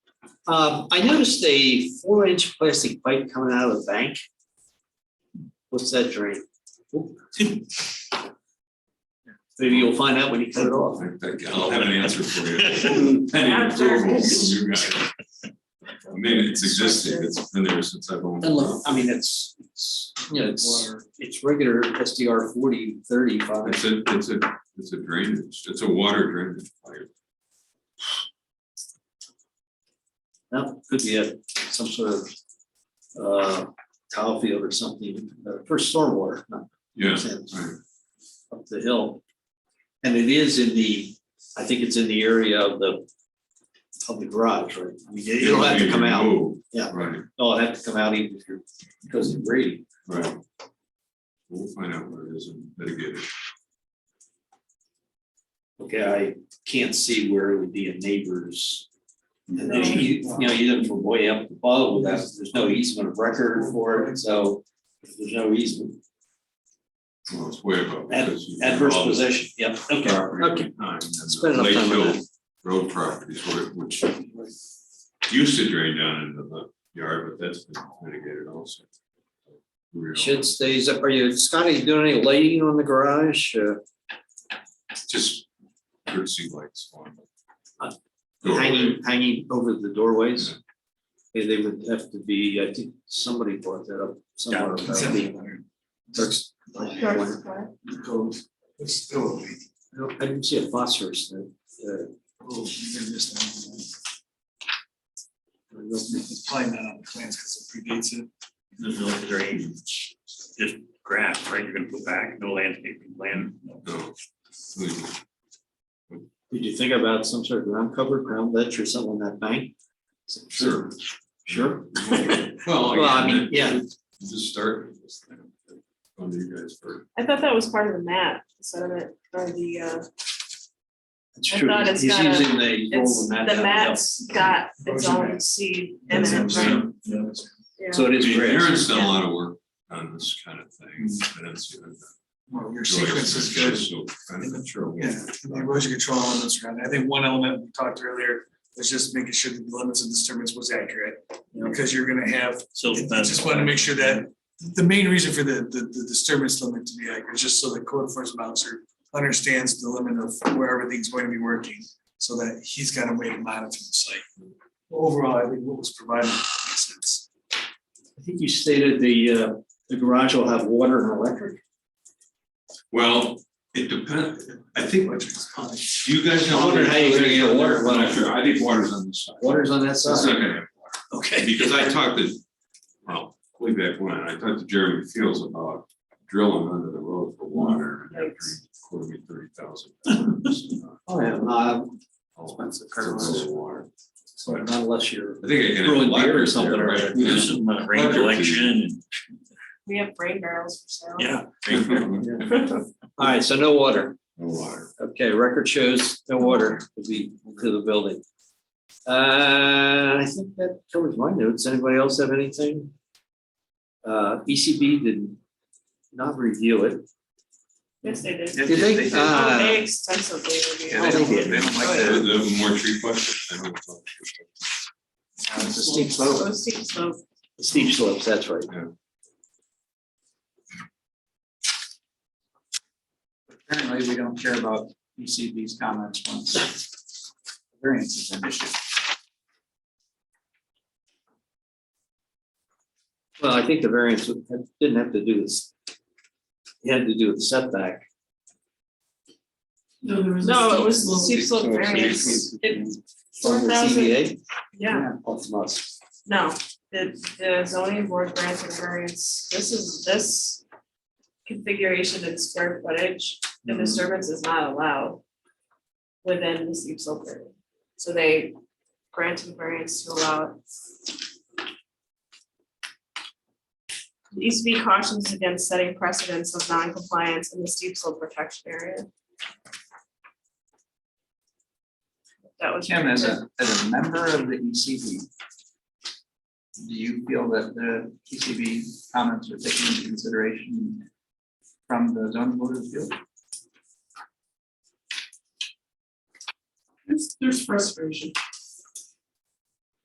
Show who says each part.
Speaker 1: Um, I noticed a four inch plastic pipe coming out of the bank. What's that drain? Maybe you'll find out when you cut it off.
Speaker 2: I'll have an answer for
Speaker 1: Hmm,
Speaker 2: you. Pending approval from you guys. I mean, it's existing, it's been there since I've owned.
Speaker 1: And look, I mean, it's, it's, you know, it's, it's regular SDR forty thirty-five.
Speaker 2: It's a, it's a, it's a drainage, it's a water drainage pipe.
Speaker 1: That could be a, some sort of, uh, tile field or something, uh, for stormwater, not
Speaker 2: Yeah,
Speaker 1: sense.
Speaker 2: right.
Speaker 1: up the hill. And it is in the, I think it's in the area of the, of the garage, right? I mean, it- It'll have to come out,
Speaker 2: Removed,
Speaker 1: Yeah.
Speaker 2: Right,
Speaker 1: it'll have to come out even if you're, because of grading.
Speaker 2: right. We'll find out what it is and mitigate it.
Speaker 1: Okay, I can't see where it would be a neighbor's. And then
Speaker 2: Right.
Speaker 1: you, you know, you look from way up above, that's, there's no easement of record for it, so if there's no easement,
Speaker 2: Well, it's way above.
Speaker 1: Ad-
Speaker 2: because you-
Speaker 1: adverse
Speaker 2: all the
Speaker 1: possession, yep, okay,
Speaker 2: Property at
Speaker 1: okay.
Speaker 2: the time, and the
Speaker 1: Spend enough
Speaker 2: Lake
Speaker 1: time on
Speaker 2: Hill
Speaker 1: that.
Speaker 2: Road properties, where- which used to drain down into the yard, but that's been mitigated also. Real-
Speaker 1: Shed stays up, are you, Scotty, doing any lighting on the garage? Uh,
Speaker 2: Just courtesy lights on.
Speaker 1: Uh,
Speaker 2: Doorway.
Speaker 1: hanging, hanging over the doorways. They, they would have to be, I think somebody brought that up somewhere. about the- Turks- I
Speaker 3: It's still.
Speaker 1: don't- I didn't see a phosphorus there. Uh,
Speaker 3: Oh, you can miss that
Speaker 1: I don't think-
Speaker 3: It's probably not on the plans because it predates it.
Speaker 4: There's no drainage, just grass, right, you're gonna put back, no landscaping plan.
Speaker 2: No, legal.
Speaker 1: Did you think about some sort of ground cover, ground ledge or something on that bank?
Speaker 2: Sure.
Speaker 1: Sure.
Speaker 2: Well,
Speaker 1: Well, I
Speaker 2: again,
Speaker 1: mean, yeah.
Speaker 2: Just start with this thing. On you guys first.
Speaker 5: I thought that was part of the map, the sediment or the, uh,
Speaker 1: It's
Speaker 5: I
Speaker 1: true.
Speaker 5: thought it's
Speaker 1: He's
Speaker 5: got a-
Speaker 1: using the. roll
Speaker 5: it's,
Speaker 1: mat
Speaker 5: the
Speaker 1: down
Speaker 5: mat's got its own seed in
Speaker 3: That's what I'm
Speaker 5: it, right?
Speaker 3: saying. Yeah, that's-
Speaker 1: hill.
Speaker 5: Yeah.
Speaker 1: So it is grass.
Speaker 2: Aaron's done a lot of work on this kind of thing.
Speaker 1: Mm.
Speaker 2: I don't see that.
Speaker 3: Well, your sequence is good.
Speaker 2: So I'm not sure.
Speaker 3: Yeah, and the erosion control elements around. it. I think one element we talked earlier was just making sure that the limits of disturbance was accurate. Because you're gonna have,
Speaker 4: So.
Speaker 3: I just wanted to make sure that, the main reason for the, the, the disturbance limit to be accurate is just so the code enforcement officer understands the limit of where everything's going to be working, so that he's got a way to monitor the site. Overall, I think what was provided makes sense.
Speaker 1: I think you stated the, uh, the garage will have water and electric.
Speaker 2: Well, it depends. I think what you guys know.
Speaker 1: I wondered how you're gonna get water.
Speaker 2: I'm not sure. I think water's on this side.
Speaker 1: Water's on that
Speaker 2: It's not
Speaker 1: side.
Speaker 2: gonna
Speaker 1: Okay.
Speaker 2: Because I talked to, well, way back when, I talked to Jeremy Fields about drilling under the road for water. and After he quoted me thirty thousand.
Speaker 1: Oh, yeah, not,
Speaker 2: Expensive. Water. But
Speaker 1: not unless you're.
Speaker 2: I think I can.
Speaker 1: Brewing beer or something, right?
Speaker 4: Do some uh, rain collection
Speaker 5: We have brain barrels for sale.
Speaker 4: and, yeah.
Speaker 2: No
Speaker 1: All right, so no water.
Speaker 2: water.
Speaker 1: Okay, record shows no water to the, to the building. Uh, I think that covers my notes. Anybody else have anything? Uh, ECB did not review it.
Speaker 5: Yes, they did.
Speaker 1: Did they?
Speaker 5: Oh,
Speaker 1: Uh,
Speaker 5: They extensively reviewed.
Speaker 1: I
Speaker 5: it.
Speaker 1: think it-
Speaker 2: They don't like the, the more tree question. I don't know.
Speaker 1: It's a steep slope.
Speaker 5: So steep slope.
Speaker 1: Steep slopes, that's right.
Speaker 6: apparently we don't care about ECB's comments once variance is an issue.
Speaker 1: Well, I think the variance would- didn't have to do this. It had to do with setback.
Speaker 5: No, it was the steep slope variance. It, four
Speaker 1: From the
Speaker 5: thousand,
Speaker 1: CBA?
Speaker 5: yeah,
Speaker 1: Oh, from us.
Speaker 5: no, the, the zoning board granted a variance. This is, this configuration and square footage, the disturbance is not allowed within the steep slope area. So they granted variance to allow it. The ECB cautions against setting precedents of non-compliance in the steep slope protection area. That was.
Speaker 6: Tim, as a, as a member of the ECB, do you feel that the ECB comments are taken into consideration from the zoning board of appeals?
Speaker 7: There's, there's frustration.